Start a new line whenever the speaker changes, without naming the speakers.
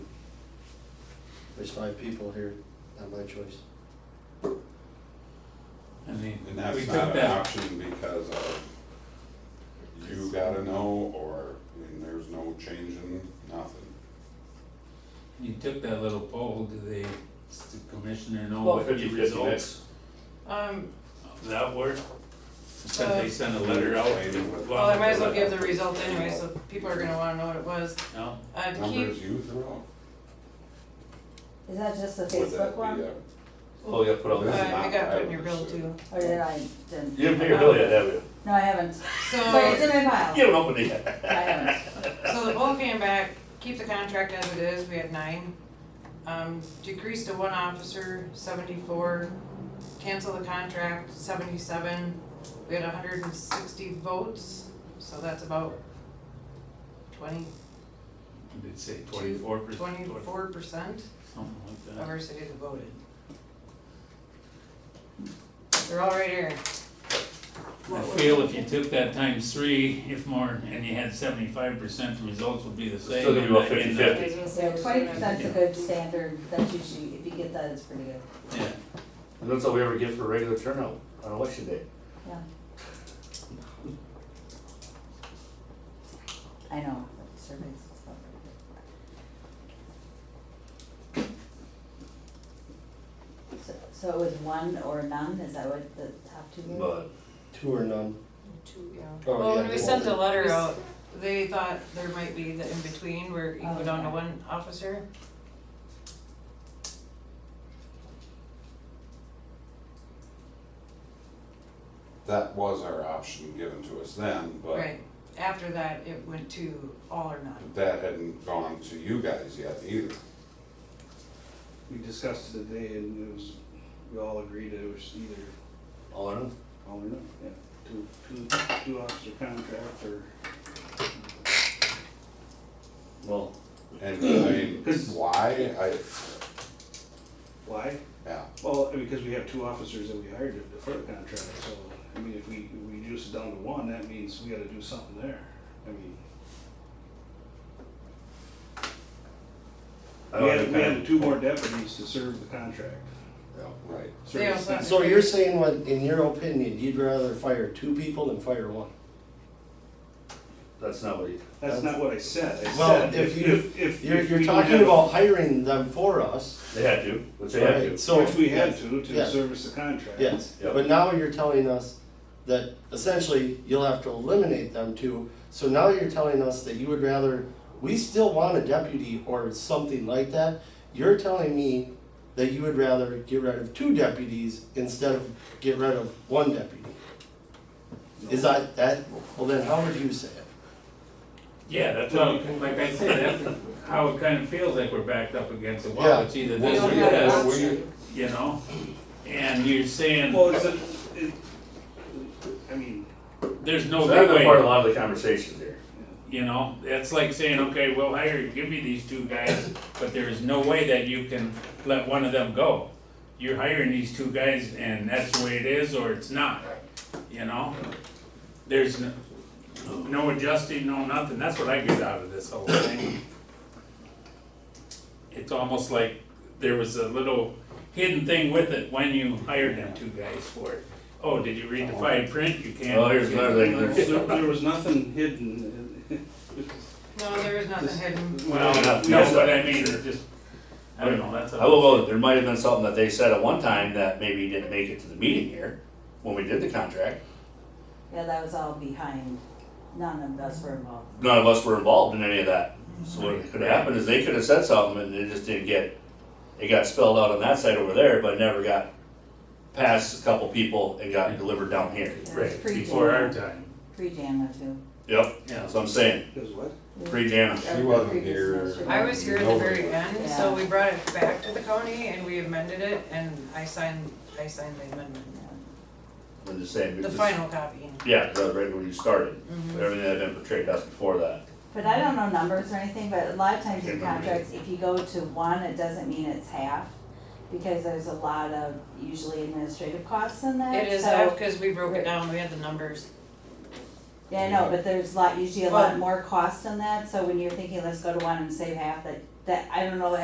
There's five people here, not my choice.
I mean, we
And that's
took
not an
that,
option because of you gotta know, or, I mean, there's no changing, nothing.
you took that little poll, do they, does the commissioner know
About
what the
50 50
results
mix. Um,
of that were? Because they
Uh,
sent a letter out.
Explaining what
Well,
well, I might as well give the results anyway, so people are gonna wanna know what it was.
No,
Uh, to keep,
numbers you throw.
Is that just the
Would that
Facebook
be
one?
a-
Oh, yeah, put
uh,
on
This
that.
is
I
not
got put in
Iowa,
your bill
so-
too.
Or did I, didn't?
You didn't pay your bill yet, have you?
No, I haven't. But it's in
So,
my pile.
You haven't opened it yet.
I haven't.
so the poll came back, keep the contract as it is, we had nine. Um, decrease to one officer, seventy-four, cancel the contract, seventy-seven. We had hundred and sixty votes, so that's about twenty,
I did say twenty-four percent.
twenty-four percent
Something like
of
that.
our cities have voted. They're all right here.
I feel if you took that times three, if more, and you had seventy-five percent, the results would be the same.
Still gonna be about
and- and, uh,
50-50.
Yeah, twenty percent's a good standard, that's usually, if you get that, it's pretty good,
uh, yeah.
And that's all we ever get for regular turnout on election day.
yeah. I know, but surveys and stuff are good. So, so it was one or none, is that what the top two were?
But
Two or none. Oh,
Well, when
yeah,
we
well,
sent the letter
we s-
out, they thought there might be the in-between where you can go
Oh,
down to
okay.
one officer.
That was our option given to us then, but
Right, after that, it went to all or none.
that hadn't gone to you guys yet either.
We discussed it today and it was, we all agreed it was either
all in all,
all or nothing, yeah, two, two, two officer contract or.
well,
And I mean, why, I,
Why?
yeah,
Well, because we have two officers that we hired to defer the contract, so, I mean, if we, if we reduce it down to one, that means we gotta do something there. I mean,
I
Oh,
we
don't
had,
think
we
I-
had two more deputies to serve the contract.
right.
They
Serve the
also.
contract.
So you're saying what, in your opinion, you'd rather fire two people than fire one?
that's not what he,
That's not what I said, I
Well,
said,
if
if,
you-
if, if.
You're,
if
you're
we
talking
have-
about hiring them for us,
they had to, which they had
right?
to.
So
Which we had to, to
yeah.
service the contract.
Yes,
Yep.
but now you're telling us that essentially you'll have to eliminate them too. So now you're telling us that you would rather, we still want a deputy or something like that. You're telling me that you would rather get rid of two deputies instead of get rid of one deputy. Is that, that, well then how would you say it?
Yeah, that's how, like I said, that's how it kind of feels like we're backed up against the
Yeah.
wall, it's either
Well,
this or
we-
this,
well, we-
you know? And you're saying,
Well, is it, it, I mean,
there's no
So that's
good
been part of a
way,
lot of the conversations here.
you know, it's like saying, okay, we'll hire, give me these two guys, but there is no way that you can let one of them go. You're hiring these two guys and that's the way it is, or it's not, you know? There's n- no adjusting, no nothing, that's what I get out of this whole thing. It's almost like there was a little hidden thing with it when you hired them two guys for it. Oh, did you read the fine print? You can't.
Oh, here's another thing.
there, there was nothing hidden.
No, there was nothing hidden.
Well, no, but I mean, it's just, I don't know, that's. a-
I will go, there might have been something that they said at one time that maybe didn't make it to the meeting here, when we did the contract.
Yeah, that was all behind, none of us were involved.
None of us were involved in any of that. So what could have happened is they could have said something and it just didn't get, it got spelled out on that side over there, but never got past a couple people and got delivered down here.
Yeah, it was
Right,
pre-Jan-
before our time,
Pre-Jana too.
Yep,
yeah.
that's what I'm saying,
Because what?
pre-Jana.
She wasn't
Previous
here.
administration.
I was here at the very end, so
Yeah.
we brought it back to the county and we amended it and I signed, I signed the amendment,
I'm just saying.
the
because-
final Mm-hmm. copy.
Yeah, 'cause that was right when you started, everything that had been portrayed to us before that.
But I don't know numbers or anything, but a lot of times in
Can't remember.
contracts, if you go to one, it doesn't mean it's half, because there's a lot of usually administrative costs in that,
It is,
so.
because we broke it down, we had the numbers.
Yeah, I know, but there's a lot, usually a lot
Well-
more cost in that, so when you're thinking, let's go to one and save half, that, that, I don't know,